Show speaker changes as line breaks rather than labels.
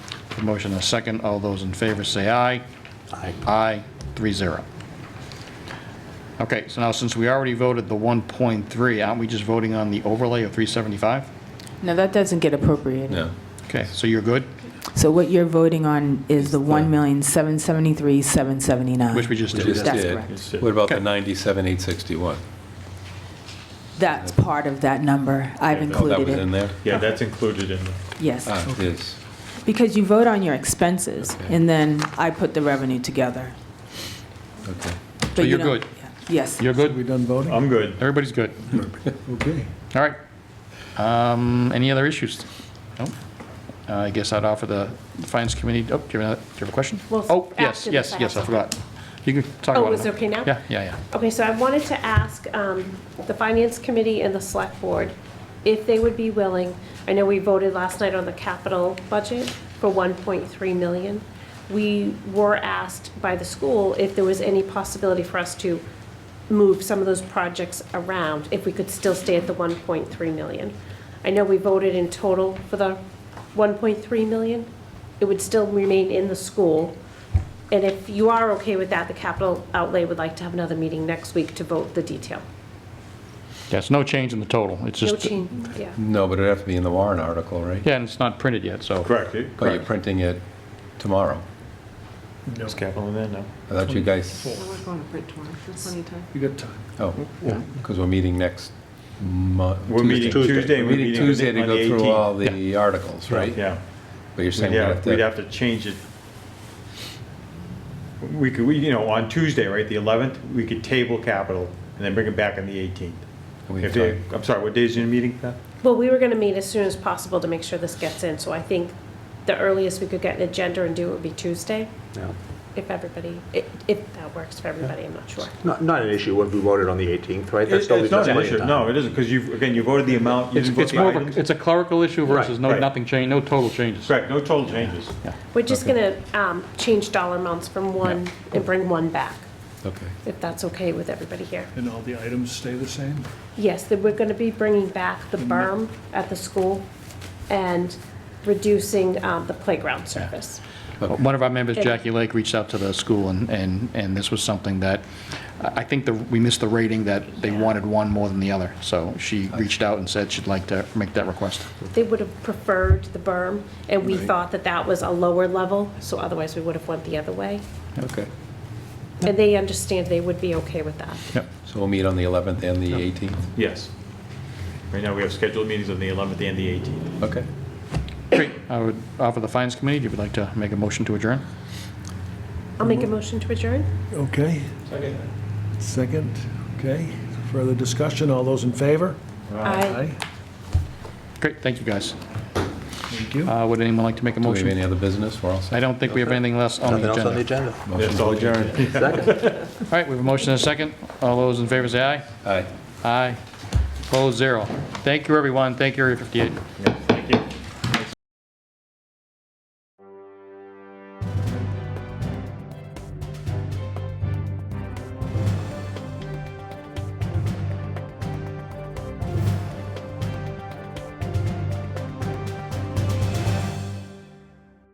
The motion is second. All those in favor say aye.
Aye.
Aye, three zero. Okay, so now since we already voted the 1.3, aren't we just voting on the overlay of 375?
No, that doesn't get appropriated.
No.
Okay, so you're good,
So what you're voting on is the one million seven seventy-three seven
which we
seventy-nine.
just
We
did.
just
That's
did.
correct.
What about the
Okay.
97, 861?
That's part of that number. I've
Oh, that
included
was in
it.
there?
Yeah, that's included in, the-
Yes,
Ah, it is.
because you vote on your expenses,
Okay.
and then I put the revenue together.
Okay.
But you
you're
don't-
good?
Yes.
You're
We
good?
done voting?
I'm good.
Everybody's good?
Okay.
All right. Um, Any other issues? No? Uh, I guess I'd offer the Finance Committee, oh, do you have another- do you have a question?
Well,
Oh, yes,
after the
yes, yes, I
fact.
forgot. You can talk
Oh,
about it.
is it okay now?
Yeah, yeah, yeah.
Okay, so I wanted to ask um, the Finance Committee and the Select Board if they would be willing, I know we voted last night on the capital budget for 1.3 million. We were asked by the school if there was any possibility for us to move some of those projects around, if we could still stay at the 1.3 million. I know we voted in total for the 1.3 million. It would still remain in the school. And if you are okay with that, the capital outlay would like to have another meeting next week to vote the detail.
Yeah, it's no change in the total. It's
No
just,
change, yeah.
No, but it'd have to be in the warrant article, right?
yeah, and it's not printed yet, so.
Correct, it-
But you're
correct.
printing it tomorrow.
It's capital in there now.
I thought you guys,
We're going to print tomorrow, there's plenty of time.
You got time.
oh, because we're meeting next month.
We're meeting Tuesday, and
We're
we're
meeting
meeting on
Tuesday to
the
go through all
18th.
the articles, right?
Yeah,
But you're saying we
yeah,
have
we'd
to,
have to change it. We could, we, you know, on Tuesday, right, the 11th, we could table capital and then bring it back on the 18th.
We
If
have
they,
time.
I'm sorry, what day is your meeting, Pat?
Well, we were going to meet as soon as possible to make sure this gets in, so I think the earliest we could get an agenda and do it would be Tuesday. If everybody, i- if that works for everybody, I'm not sure.
Not, not an issue when we voted on the 18th, right? That
It-
still
It's
leaves
not
us
an
plenty
issue,
of time.
no, it isn't, because you, again, you voted the amount, you
It's
didn't vote
it's
the
more of a,
items.
it's a clerical issue versus no,
Right.
nothing change, no total changes.
Correct, no total changes.
We're just going to change dollar amounts from one and bring one back,
okay.
if that's okay with everybody here.
And all the items stay the same?
Yes, that we're going to be bringing back the berm at the school and reducing um, the playground surface.
One of our members, Jackie Lake, reached out to the school, and, and and this was something that, I I think that we missed the rating that they wanted one more than the other. So she reached out and said she'd like to make that request.
They would have preferred the berm, and we thought that that was a lower level, so otherwise we would have went the other way.
Okay.
And they understand they would be okay with that.
So we'll meet on the 11th and the 18th?
Yes. Right now, we have scheduled meetings on the 11th and the 18th.
Okay.
Great. I would offer the Finance Committee, if you would like to make a motion to adjourn.
I'll make a motion to adjourn.
Okay. Second. Second, okay. Further discussion, all those in favor?
Aye.
Great, thank you, guys.
Thank you.
Uh, Would anyone like to make a
Do we have any
motion?
other business? We're all set.
I don't think we have anything else on
Nothing
the
else on the
agenda.
agenda.
Motion
all
to adjourn.
Second.
All right, we have a motion and a second. All those in favor say aye.
Aye.
Aye. Opposed, zero. Thank you, everyone. Thank you, Area 58.
Yes.